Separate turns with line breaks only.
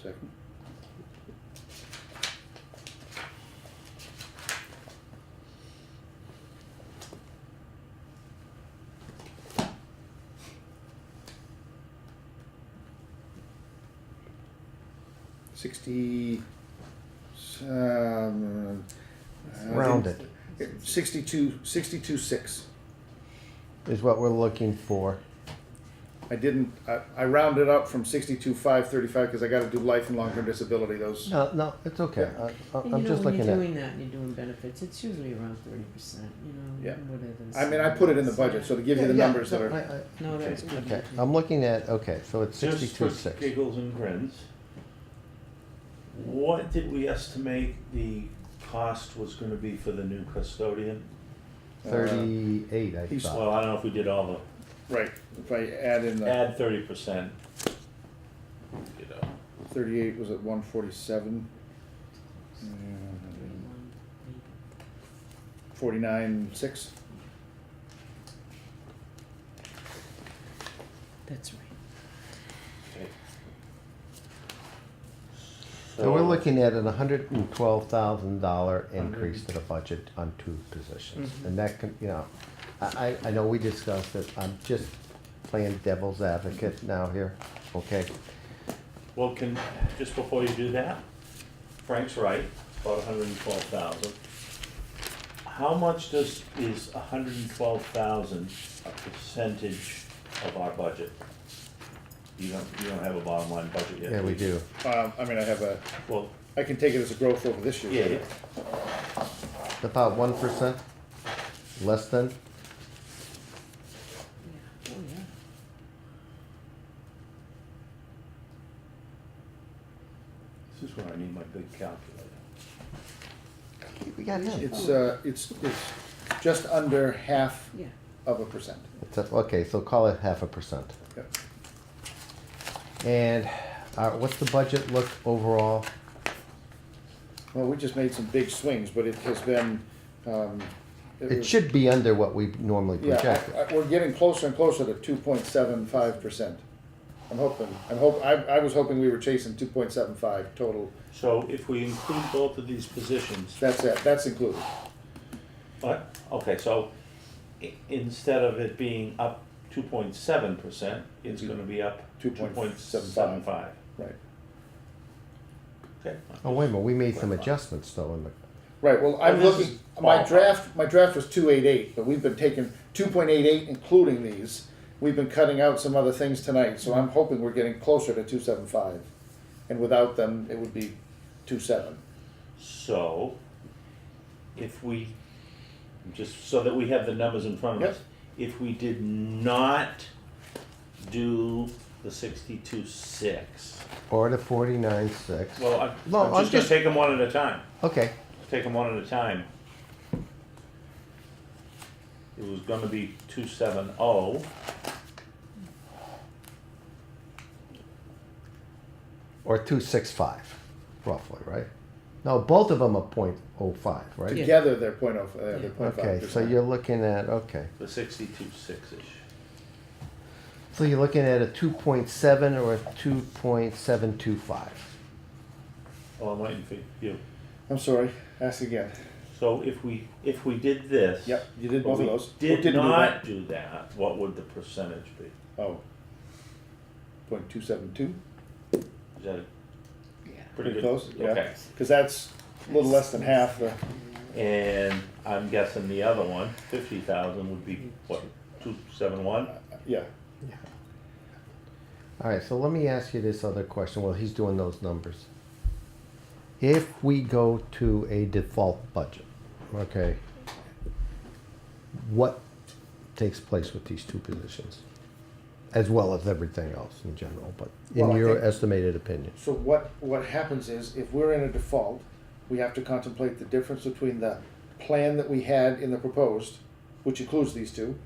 Second. Sixty, um, uh,
Round it.
Sixty-two, sixty-two, six.
is what we're looking for.
I didn't, I, I rounded up from sixty-two, five, thirty-five, because I gotta do life and long-term disability, those.
No, no, it's okay. I, I-
And
I'm
you know,
just
when
looking at,
you're doing that and you're doing benefits, it's usually around thirty percent, you know,
Yeah.
whatever. the
I mean, I put it in the budget, so to give you the
Yeah, yeah,
numbers that
no,
are,
I- I-
No, that was good.
Okay, I'm looking at, okay, so it's
Just for
sixty-two oh six.
giggles and grins, what did we estimate the cost was gonna be for the new custodian?
Thirty-eight, I
uh, he's-
thought.
Well, I don't know if we did all
right, if I add in
the,
the
add thirty percent. You know,
thirty-eight was at one forty-seven. Forty-nine, six,
That's right.
okay.
So we're looking at an hundred and twelve thousand dollar increase to the budget on two positions. And that can, you know, I, I, I know we discussed it, I'm just playing devil's advocate now here, okay?
Well, can, just before you do that, Frank's right, about hundred and twelve thousand. How much does, is hundred and twelve thousand a percentage of our budget? You don't, you don't have a bottom line budget yet?
Yeah, we do.
um, I mean, I have a,
Well,
I can take it as a growth over this year.
yeah, yeah,
About one percent, less than,
Yeah. Oh, yeah.
this is where I need my big calculator.
we got him.
It's, uh, it's, it's just under half
Yeah.
of a percent.
It's a- Okay, so call it half a percent.
Yep.
And uh, what's the budget look overall?
Well, we just made some big swings, but it has been, um.
It
was-
should be under what we normally
Yeah,
project.
I- I- we're getting closer and closer to two point seven five percent. I'm hoping, I'm hope, I, I was hoping we were chasing two point seven five total.
So if we include both of these positions,
That's it, that's included.
But, okay, so i- instead of it being up two point seven percent, it's gonna be up two point seven
2.75.
five.
Right.
Okay.
Oh, wait a minute, we made some adjustments though in the,
Right, well, I'm
Well, this
looking,
is
my
ballpark.
draft, my draft was two eight eight, but we've been taking two point eight eight, including these. We've been cutting out some other things tonight, so I'm hoping we're getting closer to two seven five. And without them, it would be two seven.
So, if we, just so that we have the numbers in front of
Yep.
us, if we did not do the sixty-two six,
or the forty-nine six.
well, I'm,
No,
I'm
I'm
just gonna
just-
take them one at a time,
Okay,
take them one at a time. It was gonna be two seven oh.
or two six five, roughly, right? No, both of them are point oh five, right?
Yeah.
Together, they're point oh, uh,
Yeah.
they're point five
Okay, so you're looking at, okay,
The sixty-two six-ish.
so you're looking at a two point seven or a two point seven two five.
Oh, I'm waiting for you.
I'm sorry, ask again.
So if we, if we did this.
Yep, you did
but
both of
we
those. Or
Did
didn't do
not do that, what would the percentage be?
Oh. Point two seven two,
Is that
Yeah.
pretty
pretty
good?
close, yeah,
Okay.
cause that's a little less than half the,
And I'm guessing the other one, fifty thousand would be what, two seven one?
yeah.
All right, so let me ask you this other question while he's doing those numbers. If we go to a default budget, okay, what takes place with these two positions? As well as everything else in general, but
Well,
in
I
your
think-
estimated opinion.
So what, what happens is, if we're in a default, we have to contemplate the difference between the plan that we had in the proposed, which includes these two,